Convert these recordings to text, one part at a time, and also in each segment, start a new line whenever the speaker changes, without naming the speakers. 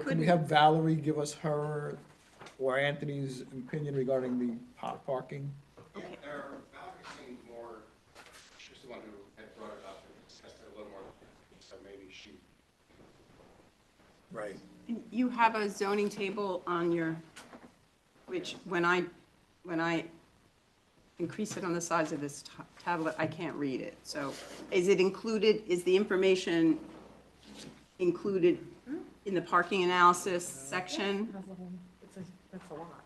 Can we have Valerie give us her or Anthony's opinion regarding the pot parking?
Yeah, there, Valerie seemed more, she was the one who had brought it up and discussed it a little more, so maybe she,
Right.
You have a zoning table on your, which when I, when I increase it on the size of this ta- tablet, I can't read it. So is it included, is the information included in the parking analysis section?
That's a whole- it's a- That's a lot.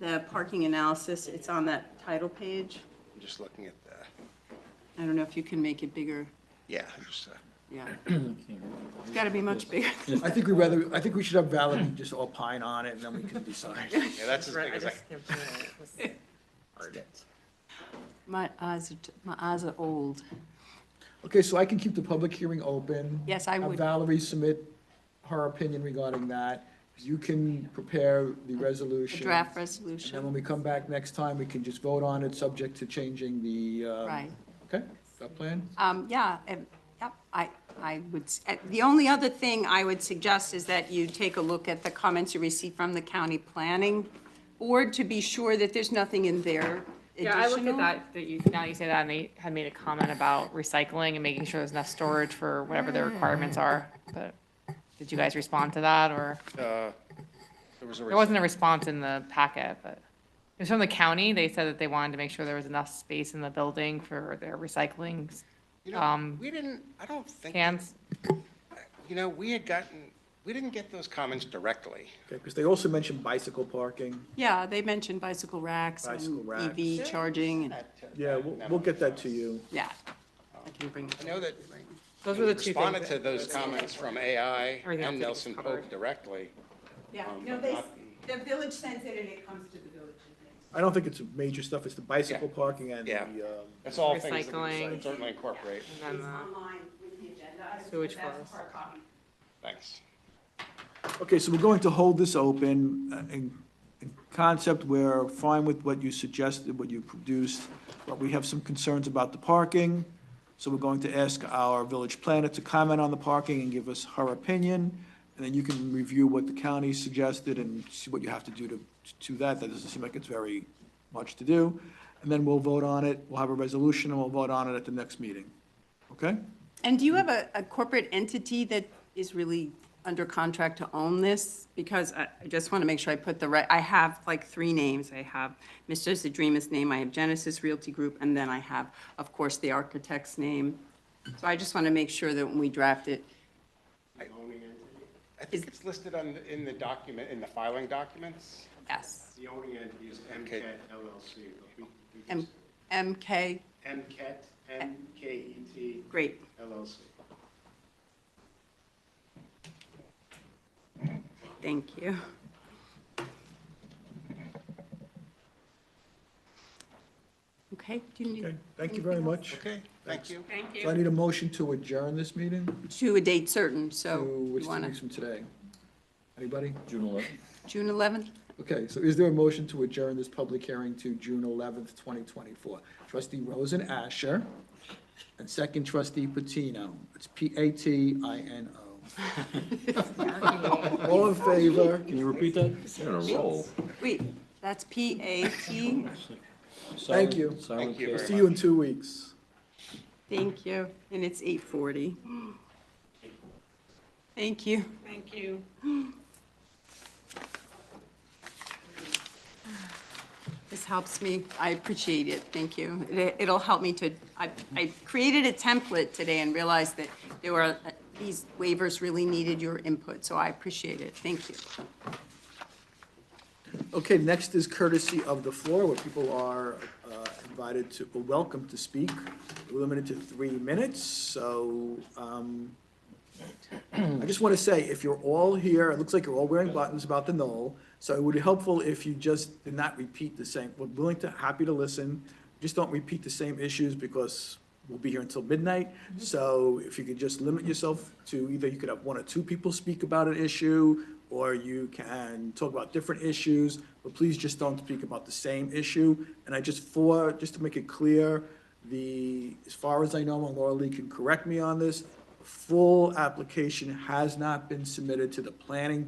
The parking analysis, it's on that title page?
I'm just looking at the,
I don't know if you can make it bigger.
yeah, just, uh,
Yeah. It's got to be much bigger.
I think we rather, I think we should have Valerie just opine on it and then we can decide.
yeah, that's as big as I,
My eyes are, t- my eyes are old.
Okay, so I can keep the public hearing open.
Yes, I
Have
would.
Valerie submit her opinion regarding that. You can prepare the
The
resolution.
draft
And then
resolution.
when we come back next time, we can just vote on it, subject to changing the, uh.
Right.
Okay, that plan?
Um, yeah, and, yep, I, I would, s- uh, the only other thing I would suggest is that you take a look at the comments you received from the county planning board to be sure that there's nothing in there
Yeah, I looked
additional.
at that, that you, now you say that, and they had made a comment about recycling and making sure there's enough storage for whatever their requirements are, but did you guys respond to that, or?
uh, there was a.
There wasn't a response in the packet, but it was from the county, they said that they wanted to make sure there was enough space in the building for their recycling
You know,
um,
we didn't, I don't think,
cans.
you know, we had gotten, we didn't get those comments directly.
Okay, because they also mentioned bicycle parking.
Yeah, they mentioned bicycle racks
Bicycle
and
racks.
EV charging, and,
Yeah, we'll, we'll get that to you.
yeah. I can bring.
I know that
Those were
we
the two things.
responded to
that-
those comments from AI and
Everything else I think is
Nelson Pope
covered.
directly.
Yeah,
Um,
no,
but
they,
not-
the village sends it and it comes to the village.
I don't think it's major stuff, it's the bicycle
Yeah.
parking and the,
Yeah.
um,
That's all things that we
Recycling.
should certainly incorporate.
And
It's
then, uh,
online with the agenda. item,
sewage
but that's
flows.
hard copy.
Thanks.
um, Okay, so we're going to hold this open. uh, In in concept, we're fine with what you suggested, what you produced, but we have some concerns about the parking. So we're going to ask our village planner to comment on the parking and give us her opinion. And then you can review what the county suggested and see what you have to do to, to that. That doesn't seem like it's very much to do. And then we'll vote on it. We'll have a resolution and we'll vote on it at the next meeting. Okay?
And do you have a, a corporate entity that is really under contract to own this? Because I, I just want to make sure I put the right, I have like three names. I have Mr. Zadrima's name, I have Genesis Realty Group, and then I have, of course, the architect's name. So I just want to make sure that when we draft it,
I think it's listed on, the- in the document, in the filing documents.
yes,
The owning entity is
Okay.
MCAT LLC, but we, we
M,
just,
MK,
MCAT, M-K-E-T
great.
LLC.
Thank you. Okay, do you need?
Okay, thank you very
anything else?
much.
Okay, thank you.
Thank
So I need a motion to adjourn this meeting?
To a date certain, so
to, which
you
is two
want
weeks
to,
from today. Anybody?
June 11th.
June 11th?
Okay, so is there a motion to adjourn this public hearing to June 11th, 2024? Trustee Rosen Asher, and second trustee Patino. It's P-A-T-I-N-O. All in favor?
Can you repeat that? You're on a roll.
Wait, that's P-A-T,
Thank you.
Thank you
See you in two weeks.
thank you, and it's 8:40. Thank you. Thank you. This helps me, I appreciate it, thank you. It- It'll help me to, I, I created a template today and realized that there were, uh, these waivers really needed your input, so I appreciate it, thank you.
Okay, next is courtesy of the floor, where people are uh, invited to, or welcome to speak. We're limited to three minutes, so um, I just want to say, if you're all here, it looks like you're all wearing buttons about the Knoll, so it would be helpful if you just did not repeat the same, we're willing to, happy to listen, just don't repeat the same issues because we'll be here until midnight. So if you could just limit yourself to either you could have one or two people speak about an issue, or you can talk about different issues, but please just don't speak about the same issue. And I just, for, just to make it clear, the, as far as I know, and Laura Lee can correct me on this, full application has not been submitted to the planning